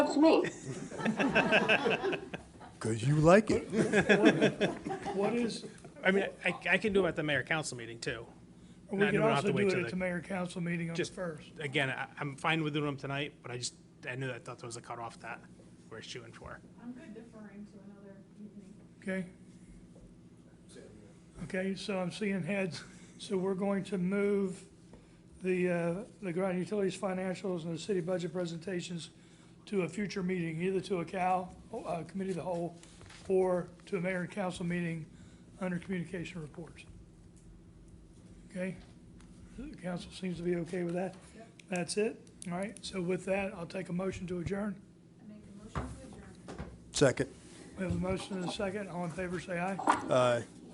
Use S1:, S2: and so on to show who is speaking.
S1: That's me.
S2: Because you like it.
S3: What is,
S4: I mean, I, I can do it at the mayor council meeting too.
S3: we
S4: No,
S3: could
S4: no, we'll have
S3: also
S4: to
S3: do
S4: wait
S3: it
S4: till
S3: at
S4: the-
S3: the mayor council meeting on the
S4: Just-
S3: first.
S4: Again, I, I'm fine with doing them tonight, but I just, I knew, I thought there was a cutoff that we're shooting for.
S5: I'm good deferring to another
S3: Okay?
S5: evening.
S3: Okay, so I'm seeing heads, so we're going to move the, uh, the ground utilities financials and the city budget presentations to a future meeting, either to a Cal, uh, committee of the whole, or to a mayor and council meeting under communication reports. Okay? The council seems to be okay with that? That's it? All right, so with that, I'll take a motion to adjourn.
S5: I make a motion to adjourn.
S2: Second.
S3: We have a motion and a second, all in favor, say aye.
S2: Aye.